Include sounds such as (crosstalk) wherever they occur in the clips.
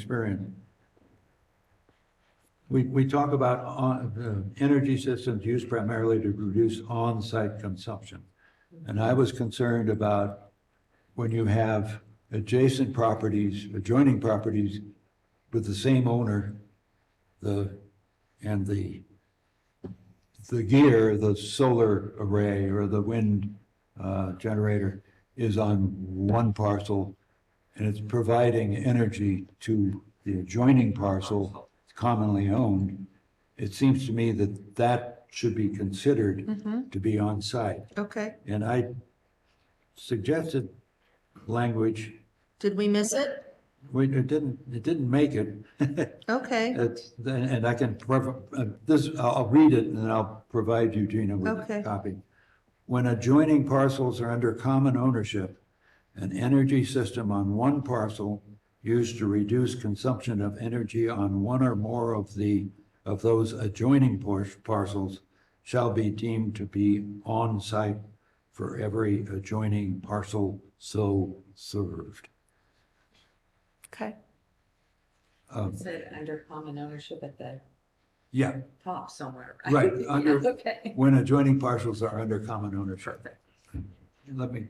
experience. We, we talk about on, uh, energy systems used primarily to reduce on-site consumption. And I was concerned about when you have adjacent properties, adjoining properties with the same owner, the, and the, the gear, the solar array or the wind, uh, generator is on one parcel and it's providing energy to the adjoining parcel commonly owned, it seems to me that that should be considered to be on site. Okay, And I suggested language, did we miss it? we, it didn't, it didn't make it. (laughs) Okay, It's, and I can, prov- uh, this, I'll I'll read it and then I'll provide you, Gina, with a Okay. copy. When adjoining parcels are under common ownership, an energy system on one parcel used to reduce consumption of energy on one or more of the, of those adjoining par- parcels shall be deemed to be on-site for every adjoining parcel so served. okay. Um, It said under common ownership at the Yeah, top somewhere, Right, right? under- (laughs) Yeah, Okay. when adjoining parcels are under common ownership. Perfect. Let me,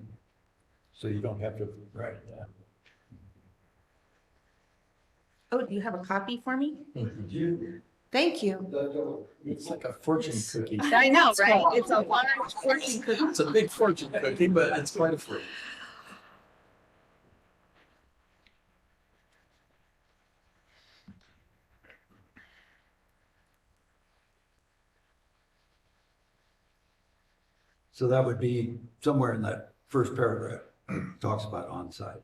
so you don't have to, right, yeah. Oh, do you have a copy for me? Do you- Thank you. It's like a fortune cookie. I know, right? It's a large fortune cookie. It's a big fortune cookie, but it's quite a fruit. So that would be somewhere in that first paragraph, (clears throat) talks about on-site.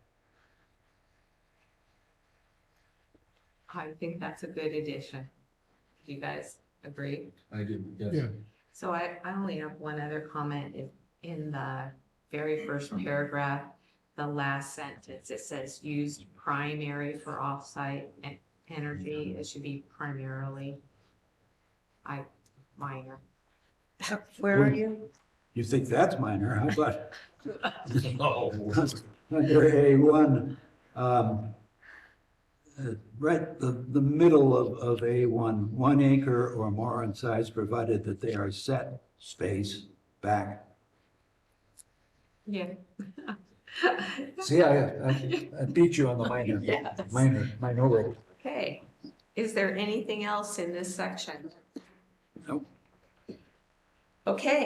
I think that's a good addition. Do you guys agree? I do, Yeah. So I, I only have one other comment. If- In the very first paragraph, the last sentence, it says used primary for offsite en- energy. It should be primarily. I, minor. Where are you? You think that's minor, how about No. under A1? um, uh, Right, the, the middle of, of A1, one acre or more in size, provided that they are set space back. (laughs) Yeah. See, I, I I beat you on the minor, Yes. minor, minority. Okay, is there anything else in this section? Nope. Okay,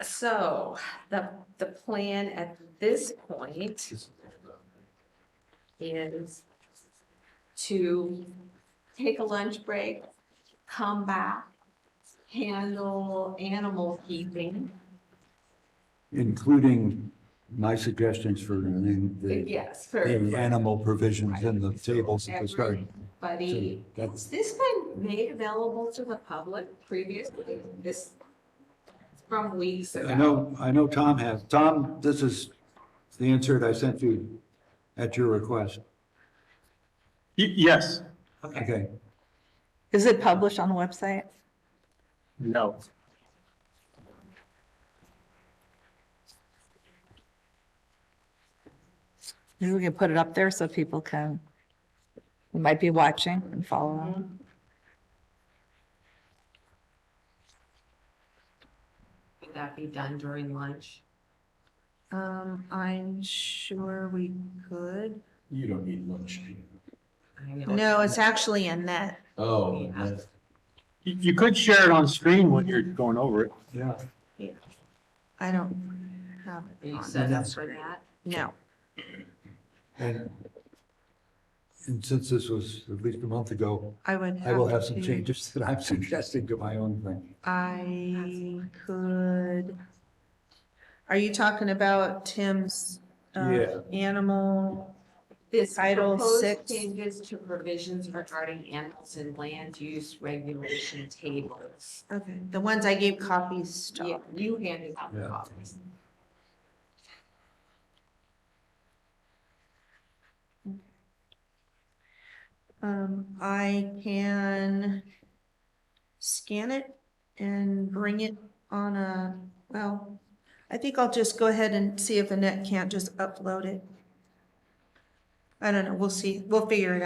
so the, the plan at this point is to take a lunch break, come back, handle animal keeping. Including my suggestions for the, the- Yes, for the animal provisions in the tables at the start. everybody. That's- Has this been made available to the public previously? This, from weeks ago? I know, I know Tom has. Tom, this is the insert I sent you at your request. Y- Yes. Okay, Is it published on the website? No. Maybe we can put it up there so people can, who might be watching and follow. Would that be done during lunch? Um, I'm sure we could. You don't need lunch. I know No, it's actually in that. Oh, that's- You you could share it on screen when you're going over it. yeah. I don't have it You on. set up for that? No. And, and since this was at least a month ago, I would I have. will have some to- changes that I'm (laughs) suggesting to my own thing. I could. Are you talking about Tim's uh, Yeah. animal? This Title proposed six. changes to provisions regarding animals and land use regulation tables. Okay, the ones I gave copies Yeah, to. You handed out the Yeah. copies. Um, I can scan it and bring it on a, well, I think I'll just go ahead and see if Annette can't just upload it. I don't know, we'll see, we'll figure it out.